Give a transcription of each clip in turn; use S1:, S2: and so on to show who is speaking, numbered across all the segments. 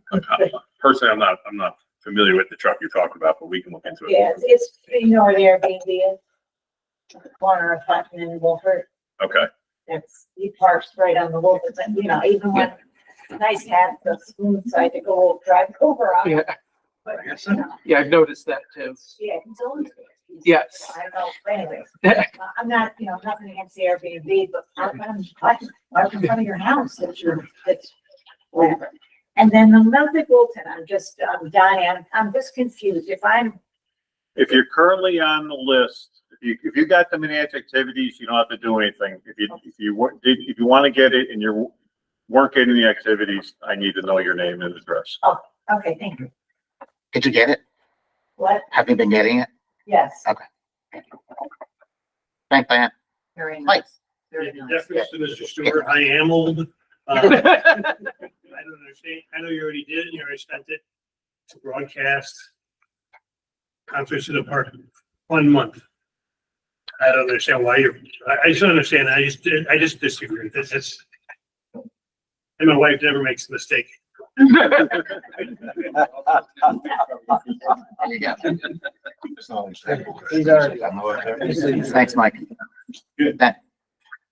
S1: Personally, I'm not, I'm not familiar with the truck you're talking about, but we can look into it.
S2: Yeah, it's, you know where the Airbnb is. Corner of Hutton and Wolford,
S1: Okay,
S2: that's, he parks right on the Wolford, and you know, even when nice hat, the smooth side to go drive over on.
S3: Yeah.
S2: But, you know,
S3: Yeah, I've noticed that too.
S2: yeah, he's always.
S3: Yes.
S2: I don't know, but anyways, I- I'm not, you know, nothing against the Airbnb, but I'm, I'm, I'm in front of your house that you're, that's whatever. And then the Ludwig Wilton, I'm just, I'm dying, I'm- I'm just confused. If I'm,
S1: if you're currently on the list, if you, if you got the Manatee activities, you don't have to do anything. If you, if you, wa- did- if you want to get it and you're, weren't getting the activities, I need to know your name and address.
S2: okay, thank you.
S4: Did you get it?
S2: What?
S4: Have you been getting it?
S2: Yes.
S4: Thank Diane.
S2: Very
S4: Mike.
S2: nice. Very nice.
S5: Deference to Mr. Stewart, I am old. Uh, I don't understand, I know you already did, and you already spent it to broadcast concerts in the park, one month. I don't understand why you're, I, I just don't understand, I just, I just disagree, this is. And my wife never makes a mistake.
S4: There you go.
S6: These are-
S4: Thanks, Mike.
S6: Good.
S4: That,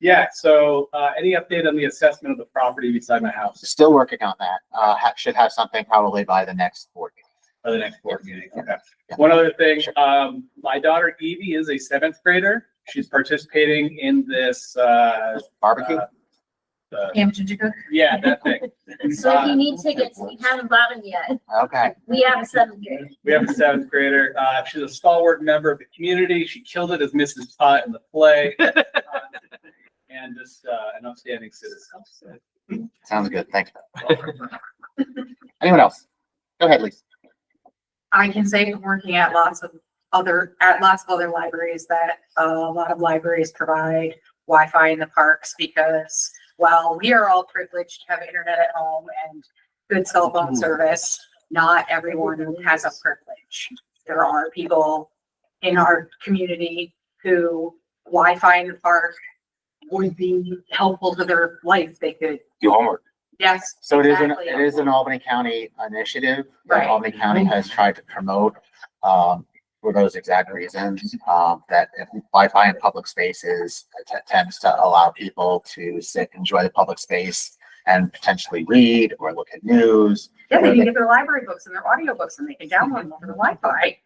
S6: Yeah, so, uh, any update on the assessment of the property beside my house
S4: still working on that. Uh, ha- should have something probably by the next board. meeting.
S6: for the next board meeting? Okay.
S4: Yeah.
S6: One other thing,
S4: Sure.
S6: um, my daughter Evie is a seventh grader. She's participating in this, uh,
S4: Barbecue?
S6: Uh, uh,
S7: Amateur to cook.
S6: yeah, that thing. Uh,
S8: So you need tickets, we haven't bought them yet.
S4: Okay.
S8: We have a seventh grader.
S6: We have a seventh grader. Uh, she's a stalwart member of the community. She killed it as Mrs. Pot in the play. Uh, And just, uh, an upstanding citizen.
S4: Sounds good. Thanks. Anyone else? Go ahead, Lisa.
S7: I can say from working at lots of other, at lots of other libraries that uh, a lot of libraries provide Wi-Fi in the parks because while we are all privileged to have internet at home and good cell phone service, not everyone has a privilege. There are people in our community who Wi-Fi in the park would be helpful to their life. They could,
S4: Do homework.
S7: yes,
S4: So it is, an
S7: Exactly.
S4: it is an Albany County initiative that
S7: Right.
S4: Albany County has tried to promote, um, for those exact reasons, um, that if Wi-Fi in public spaces att- attempts to allow people to sit, enjoy the public space and potentially read or look at news.
S7: yeah, they
S4: Right.
S7: can get their library books and their audiobooks and they can download them over the Wi-Fi.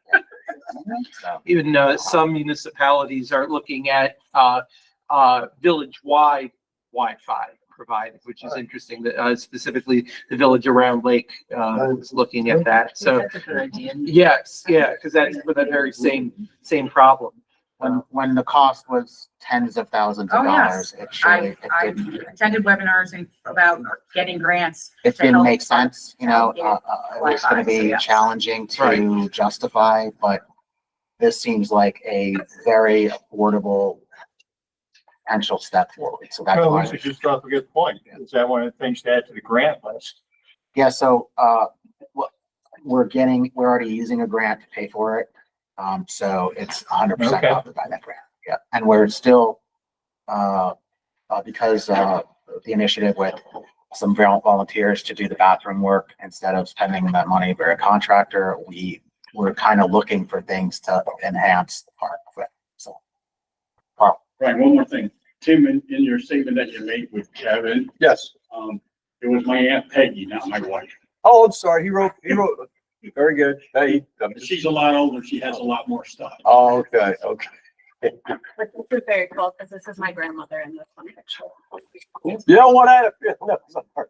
S4: So,
S3: Even uh, some municipalities are looking at uh, uh, village-wide Wi-Fi provided, which is interesting, that, uh, specifically the village around Lake uh, is looking at that. So,
S7: That's a good idea.
S3: yes, yeah, because that's for that very same, same problem.
S4: when, when the cost was tens of thousands of
S7: Oh, yes.
S4: dollars, it surely,
S7: I,
S4: it
S7: I
S4: didn't
S7: attended webinars and about getting grants.
S4: it
S7: to
S4: didn't
S7: help
S4: make sense, you know,
S7: Yeah.
S4: uh, uh, it was gonna
S7: Wi-Fi, so
S4: be
S7: yeah.
S4: challenging to justify, but this seems like a very affordable potential step forward, so that's
S9: Well,
S4: why.
S9: Lisa just dropped a good point, is that one of the things to add to the grant list?
S4: Yeah, so, uh, what, we're getting, we're already using a grant to pay for it. Um, so it's hundred percent
S9: Okay.
S4: covered by that grant. Yeah, and we're still, uh, uh, because, uh, the initiative with some vol- volunteers to do the bathroom work instead of spending that money for a contractor, we were kind of looking for things to enhance the park. with. So,
S5: Right, one more thing. Tim, in, in your statement that you made with Kevin,
S9: Yes.
S5: um, it was my Aunt Peggy, not my wife.
S9: Oh, I'm sorry, he wrote, he wrote, very good. Hey, I'm just-
S5: She's a lot older, she has a lot more stuff.
S9: Oh, okay, okay.
S8: But this is very cool, because this is my grandmother in this one picture.
S9: You know what, I, no, sorry.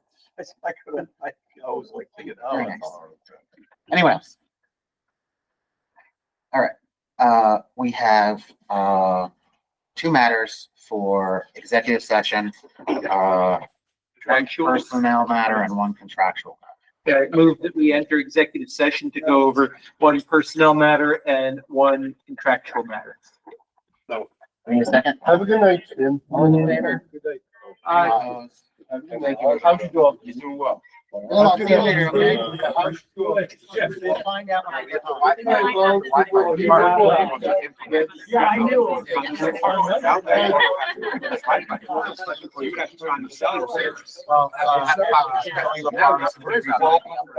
S9: I couldn't, I I was like thinking, oh.
S4: Very nice.
S9: it's-
S4: Anyone else? All right, uh, we have, uh, two matters for executive session, uh,
S3: Contractual.
S4: personnel matter and one contractual.
S3: Yeah, I move that we enter executive session to go over one personnel matter and one contractual matter.
S4: Wait a second.
S9: Have a good night, Tim.
S4: All in favor?
S3: Aye.
S4: Uh,
S3: How'd you do?
S9: You're doing well.
S3: I'll see you later, okay?
S4: Yeah.
S3: Find out when I get home.
S4: Why did I vote? Why did I vote?
S2: Yeah, I knew.
S3: Well, uh, I- I- I-